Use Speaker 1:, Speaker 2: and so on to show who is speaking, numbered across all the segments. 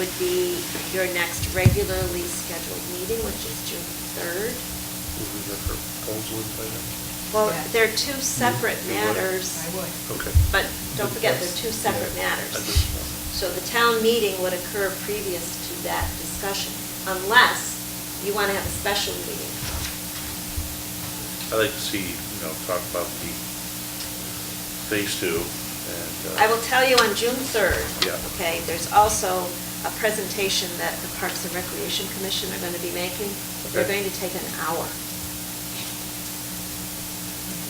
Speaker 1: would be your next regularly scheduled meeting, which is June third.
Speaker 2: Would we get proposal in by then?
Speaker 1: Well,
Speaker 3: Yeah.
Speaker 1: they're two separate
Speaker 2: You would?
Speaker 1: matters.
Speaker 3: I would.
Speaker 2: Okay.
Speaker 1: But don't forget, they're two
Speaker 2: That's-
Speaker 1: separate
Speaker 2: yeah, I
Speaker 1: matters.
Speaker 2: just-
Speaker 1: So the town meeting would occur previous to that discussion, unless you want to have a special meeting.
Speaker 2: i like to see, you know, talk about the phase two and. uh,
Speaker 1: I will tell you on June 3rd.
Speaker 2: Yeah.
Speaker 1: Okay, there's also a presentation that the Parks and Recreation Commission are going to be making. They're
Speaker 2: Okay.
Speaker 1: going to take an hour.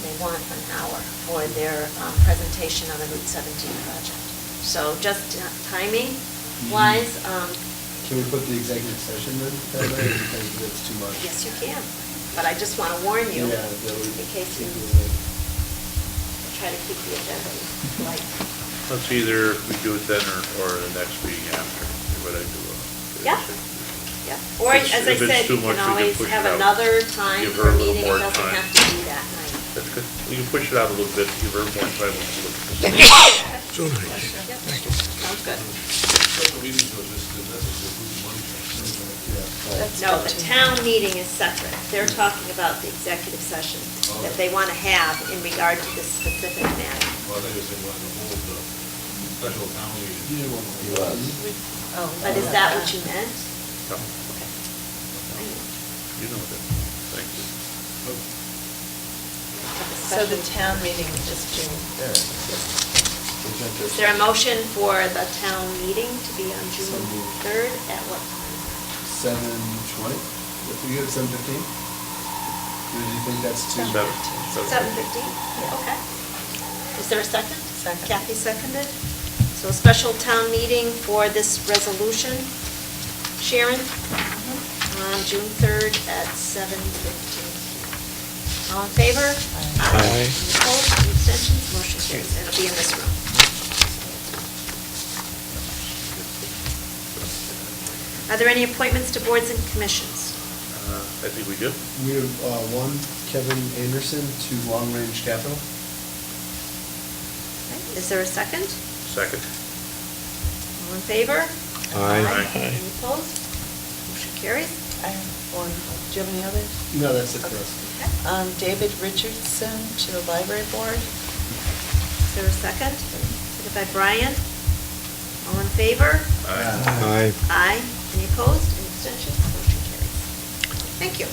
Speaker 1: They want an hour for their um, presentation on the Route 17 project. So just timing wise, um,
Speaker 4: Mm-hmm. Can we put the executive session in, that night, because that's too much?
Speaker 1: yes, you can. But I just want to warn you,
Speaker 4: Yeah, that would.
Speaker 1: in case you try to keep the agenda light.
Speaker 2: Let's either, we do it then or, or the next meeting after, what I do. uh,
Speaker 1: Yeah. Yeah, or
Speaker 2: If
Speaker 1: as
Speaker 2: it's-
Speaker 1: I
Speaker 2: if it's
Speaker 1: said,
Speaker 2: too
Speaker 1: you
Speaker 2: much, we
Speaker 1: can
Speaker 2: can
Speaker 1: always
Speaker 2: push it
Speaker 1: have
Speaker 2: out.
Speaker 1: another time
Speaker 2: Give
Speaker 1: for a
Speaker 2: her a little
Speaker 1: meeting, it
Speaker 2: more
Speaker 1: doesn't
Speaker 2: time.
Speaker 1: have to be that night.
Speaker 2: That's good. We can push it out a little bit, give her more time to look at this.
Speaker 1: Yep. Sounds good. No, the town meeting is separate, they're talking about the executive session that they want to have in regard to this specific matter.
Speaker 5: Well, that is, they want to hold
Speaker 2: uh,
Speaker 5: the special town meeting.
Speaker 3: Oh,
Speaker 1: But Oh, is that what you meant?
Speaker 2: No,
Speaker 1: Okay.
Speaker 2: You know that, thank you.
Speaker 3: So the town meeting is June 3rd.
Speaker 1: Is there a motion for the town meeting to be on June
Speaker 4: So moved.
Speaker 1: 3rd at what time?
Speaker 4: Seven twenty, if we go to seven fifteen? Or do you think that's too?
Speaker 2: Seven. Seven.
Speaker 1: Seven fifteen, okay. Is there a second?
Speaker 3: Second.
Speaker 1: Kathy seconded. So a special town meeting for this resolution. Sharon, Mm-hmm. on June third at seven fifteen. All in favor?
Speaker 3: Aye.
Speaker 6: Aye.
Speaker 1: Any Opposed, Any abstentions, motion carries. It'll be in this room. Are there any appointments to boards and commissions?
Speaker 2: Uh, I think we do.
Speaker 4: We have, uh, one, Kevin Anderson to Long Range Capital.
Speaker 1: Okay, Is there a second?
Speaker 2: Second.
Speaker 1: All in favor?
Speaker 6: Aye. Aye.
Speaker 1: Any opposed? Motion carries.
Speaker 3: I have one, do you have any others?
Speaker 4: No, that's it for us.
Speaker 1: Okay.
Speaker 3: Um, David Richardson to the library board.
Speaker 1: Is there a second? Seconded by Brian. All in favor?
Speaker 2: Aye.
Speaker 6: Aye.
Speaker 1: Aye. Any opposed? Any abstentions? Motion carries. Thank you.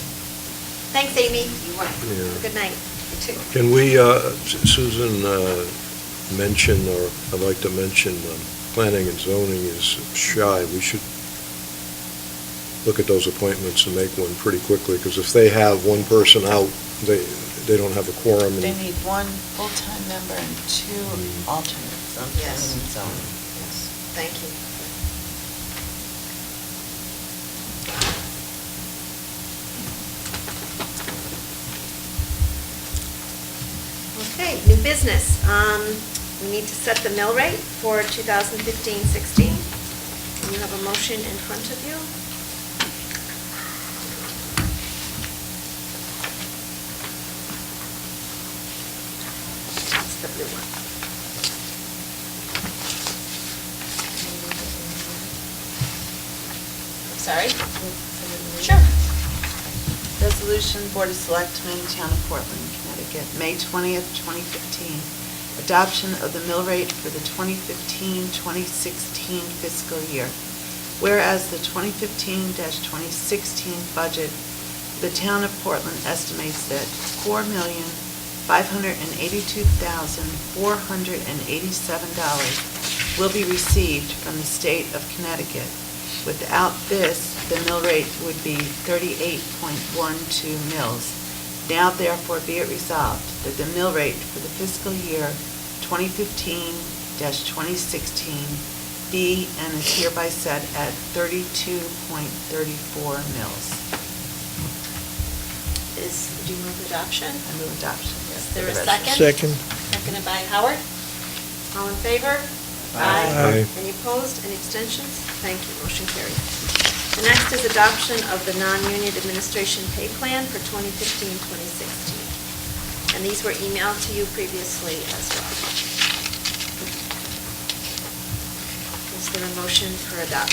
Speaker 1: Thanks, Amy. You
Speaker 6: Yeah.
Speaker 1: Good night. You too.
Speaker 6: Can we, uh, S- Susan, uh, mention, or I'd like to mention, um, planning and zoning is shy. We should look at those appointments and make one pretty quickly, because if they have one person out, they, they don't have a quorum. and-
Speaker 3: They need one full-time member and two alternates on planning
Speaker 1: Yes.
Speaker 3: and zoning. Yes.
Speaker 1: Thank you. Okay, new business. Um, We need to set the mill rate for 2015-16. You have a motion in front of you. That's the blue one.
Speaker 3: I'm Sorry?
Speaker 1: Sure.
Speaker 3: Resolution, Board of Selectmen, Town of Portland, Connecticut, May 20th, 2015. Adoption of the mill rate for the 2015-2016 fiscal year. Whereas the 2015-2016 budget, the Town of Portland estimates that $4,582,487 will be received from the state of Connecticut. Without this, the mill rate would be 38.12 mills. Now therefore be it resolved that the mill rate for the fiscal year 2015-2016 be and is hereby set at 32.34 mills.
Speaker 1: Is, do you move adoption?
Speaker 3: I move adoption.
Speaker 1: Is there a second?
Speaker 6: Second.
Speaker 1: Seconded by Howard. All in favor?
Speaker 6: Aye.
Speaker 1: Any opposed, any abstentions? Thank you, motion carried. The next is adoption of the non-union administration pay plan for 2015-2016. And these were emailed to you previously as well. Is there a motion for adoption?